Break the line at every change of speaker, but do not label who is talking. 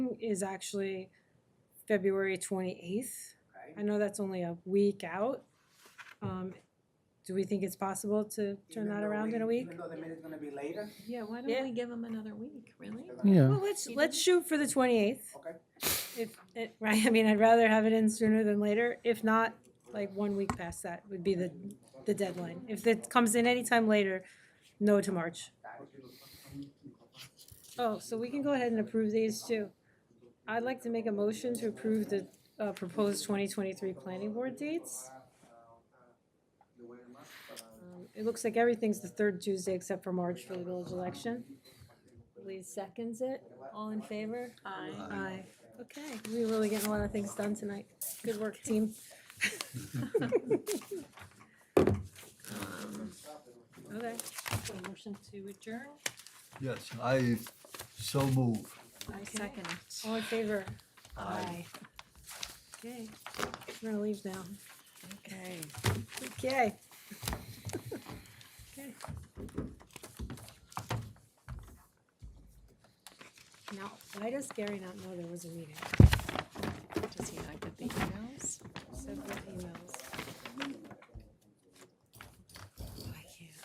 is actually February twenty-eighth. I
Okay.
know that's only a week out. Um, do we think it's possible to turn
Even
that
though
around in a week?
Even though the minute's gonna be later?
Yeah, why
Yeah.
don't we give them another week, really?
they're gonna-
Yeah,
Well, let's,
You
let's shoot for the twenty-eighth.
Okay,
If, it- right, I mean, I'd rather have it in sooner than later. If not, like, one week past that would be the, the deadline. If it comes in anytime later, no to March. Oh, so we can go ahead and approve these too. I'd like to make a motion to approve the uh, proposed 2023 planning board dates. Um, It looks like everything's the third Tuesday except for March for the village election. Lee seconds it. All in favor?
Aye.
Aye. Okay, we're really getting a lot of things done tonight. Good work, team.
Um,
Okay.
so Motion to adjourn?
Yes, I so move.
I
Okay.
second. All in favor?
Aye.
Okay, I'm gonna leave now.
Okay.
Okay. Okay. Now, why does Gary not know there was a meeting?
Does he not